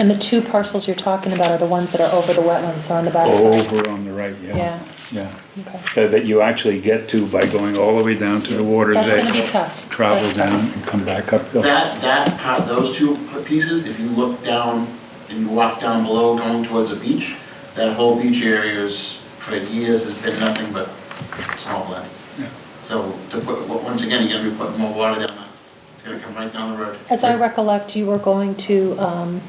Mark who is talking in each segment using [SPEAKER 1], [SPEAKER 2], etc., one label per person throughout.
[SPEAKER 1] And the two parcels you're talking about are the ones that are over the wetlands, they're on the backside.
[SPEAKER 2] Over on the right, Oh, yeah,
[SPEAKER 1] Yeah,
[SPEAKER 2] yeah. Uh,
[SPEAKER 1] okay.
[SPEAKER 2] That that you actually get to by going all the way down to the water's edge.
[SPEAKER 1] That's gonna be tough.
[SPEAKER 2] Travel
[SPEAKER 1] That's tough.
[SPEAKER 2] down and come back uphill.
[SPEAKER 3] That, that part, those two pieces, if you look down and you walk down below going towards a beach, that whole beach area is, for years, has been nothing but swampland.
[SPEAKER 2] Yeah.
[SPEAKER 3] So to put, well, once again, you're gonna be putting more water down, it's gonna come right down the road.
[SPEAKER 1] As I recollect, you were going to, um,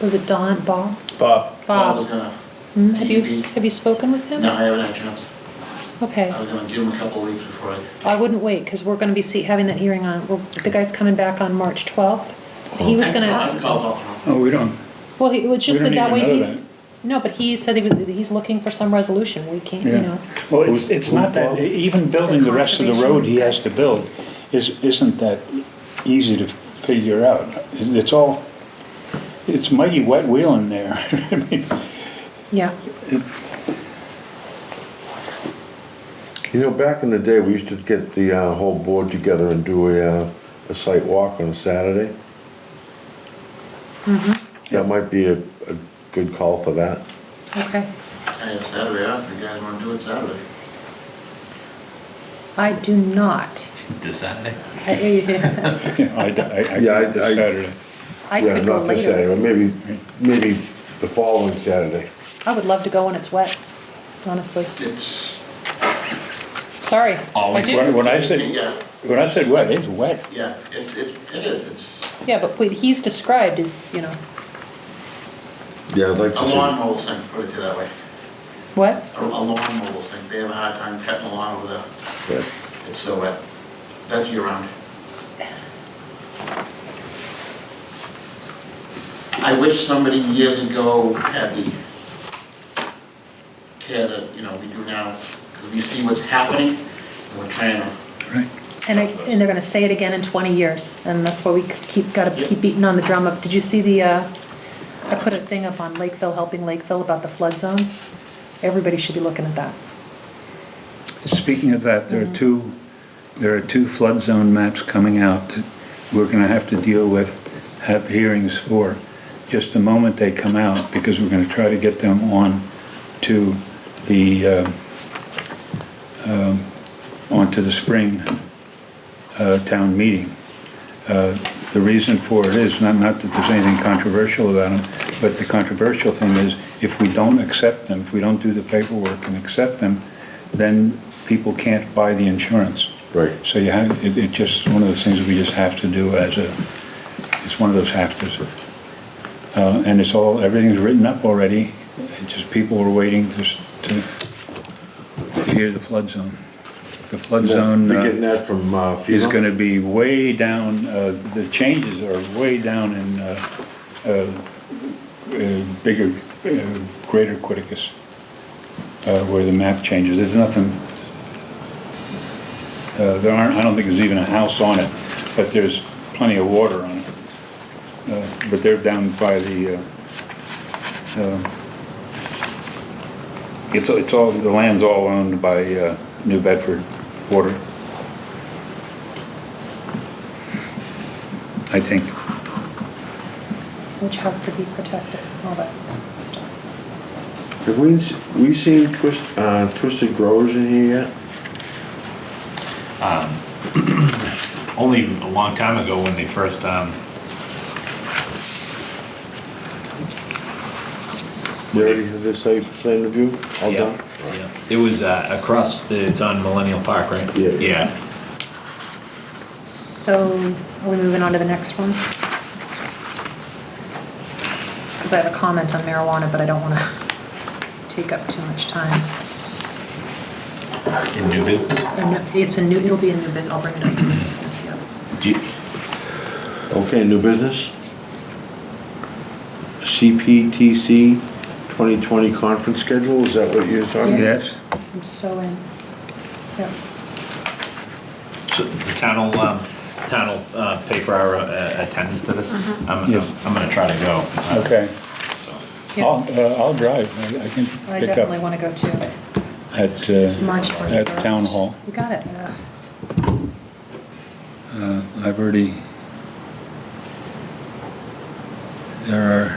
[SPEAKER 1] was it Don, Bob?
[SPEAKER 4] Bob,
[SPEAKER 3] I was
[SPEAKER 1] Bob,
[SPEAKER 3] gonna,
[SPEAKER 1] Hmm, have you, have you spoken with him?
[SPEAKER 3] no, I haven't had a chance.
[SPEAKER 1] Okay,
[SPEAKER 3] I was gonna give him a couple of weeks before I,
[SPEAKER 1] I wouldn't wait, because we're gonna be see, having that hearing on, well, the guy's coming back on March twelfth. He was gonna,
[SPEAKER 3] I called up.
[SPEAKER 2] Oh, we don't,
[SPEAKER 1] well, he- it was just
[SPEAKER 2] We
[SPEAKER 1] that
[SPEAKER 2] don't
[SPEAKER 1] that way
[SPEAKER 2] even know
[SPEAKER 1] he's,
[SPEAKER 2] that.
[SPEAKER 1] no, but he said he was, he's looking for some resolution, we can't, you
[SPEAKER 2] Yeah.
[SPEAKER 1] know.
[SPEAKER 2] well, it's, it's not that, even building the rest of the road he has to build is, isn't that easy to figure out. It's all, it's mighty wet wheel in there. I mean,
[SPEAKER 1] Yeah,
[SPEAKER 5] You know, back in the day, we used to get the uh, whole board together and do a, uh, a site walk on a Saturday.
[SPEAKER 1] Mm-hmm.
[SPEAKER 5] That might be a, a good call for that.
[SPEAKER 1] okay.
[SPEAKER 3] Hey, it's Saturday, off. if you guys wanna do it Saturday.
[SPEAKER 1] I do not.
[SPEAKER 6] This Saturday?
[SPEAKER 1] I
[SPEAKER 2] I, I, I,
[SPEAKER 5] Yeah, I- I-
[SPEAKER 2] Saturday.
[SPEAKER 1] I
[SPEAKER 5] Yeah,
[SPEAKER 1] could go
[SPEAKER 5] not this Saturday,
[SPEAKER 1] later.
[SPEAKER 5] but maybe, maybe the following Saturday.
[SPEAKER 1] I would love to go when it's wet, honestly.
[SPEAKER 3] It's,
[SPEAKER 1] Sorry.
[SPEAKER 6] Always
[SPEAKER 1] I do-
[SPEAKER 2] When when I said,
[SPEAKER 3] yeah,
[SPEAKER 2] when I said wet, it's wet.
[SPEAKER 3] yeah, it's, it's, it is, it's
[SPEAKER 1] Yeah, but what he's described is, you know,
[SPEAKER 5] Yeah, I'd like to
[SPEAKER 3] a
[SPEAKER 5] see.
[SPEAKER 3] lawn mower sink, put it that way.
[SPEAKER 1] what?
[SPEAKER 3] a a lawnmower will sink, they have a hard time cutting the lawn over there,
[SPEAKER 5] Yeah.
[SPEAKER 3] it's so wet. That's year round. I wish somebody years ago had the care that, you know, we do now, because we see what's happening, and we're trying to
[SPEAKER 2] Right.
[SPEAKER 1] And I, and they're gonna say it again in twenty years, and that's why we keep, gotta
[SPEAKER 3] Yeah.
[SPEAKER 1] keep beating on the drum up. Did you see the, uh, I put a thing up on Lakeville, helping Lakeville about the flood zones? Everybody should be looking at that.
[SPEAKER 2] Speaking of that, there are two, there are two flood zone maps coming out that we're gonna have to deal with, have hearings for, just the moment they come out, because we're gonna try to get them on to the, um, um, onto the spring uh, town meeting. Uh, The reason for it is, not, not that there's anything controversial about them, but the controversial thing is, if we don't accept them, if we don't do the paperwork and accept them, then people can't buy the insurance.
[SPEAKER 5] Right.
[SPEAKER 2] So you have, it, it just, one of those things we just have to do as a, it's one of those have-tos. Uh, and it's all, everything's written up already, It just people were waiting just to, to hear the flood zone. The flood zone.
[SPEAKER 5] They're
[SPEAKER 2] uh,
[SPEAKER 5] getting that from uh,
[SPEAKER 2] is
[SPEAKER 5] FEMA?
[SPEAKER 2] gonna be way down, uh, the changes are way down in, uh, uh, uh, bigger, uh, greater Quiticus, uh, where the map changes, there's nothing, uh, there aren't, I don't think there's even a house on it, but there's plenty of water on it. Uh, But they're down by the, uh, uh, it's, it's all, the land's all owned by, uh, New Bedford Water. I think.
[SPEAKER 1] Which has to be protected, all that stuff.
[SPEAKER 5] Have we, s- we seen twist, uh, Twisted Growers in here yet?
[SPEAKER 6] Only a long time ago when they first, um,
[SPEAKER 5] They already have their site plan review all
[SPEAKER 6] yeah,
[SPEAKER 5] done?
[SPEAKER 6] yeah. It was uh, across, it's on Millennial Park, right?
[SPEAKER 5] Yeah.
[SPEAKER 6] Yeah,
[SPEAKER 1] So, are we moving on to the next one? Because I have a comment on marijuana, but I don't wanna take up too much time. S-
[SPEAKER 6] in new business.
[SPEAKER 1] a new- It's a new, it'll be a new business, I'll bring it up to new business, yeah.
[SPEAKER 6] Do you-
[SPEAKER 5] Okay, new business? CPTC 2020 conference schedule, is that what you're talking about?
[SPEAKER 2] Yes.
[SPEAKER 1] I'm so in. Yep.
[SPEAKER 6] so The town will, um, the town will uh, pay for our uh, attendance to this. I'm,
[SPEAKER 2] Yes.
[SPEAKER 6] I'm gonna try to go. uh,
[SPEAKER 2] Okay.
[SPEAKER 6] so.
[SPEAKER 2] I'll,
[SPEAKER 1] Yeah,
[SPEAKER 2] uh, I'll drive. I I can
[SPEAKER 1] I
[SPEAKER 2] pick
[SPEAKER 1] definitely
[SPEAKER 2] up
[SPEAKER 1] want to go too.
[SPEAKER 2] at, uh,
[SPEAKER 1] March 21st.
[SPEAKER 2] town hall.
[SPEAKER 1] You got it. yeah.
[SPEAKER 2] uh, I've already, there are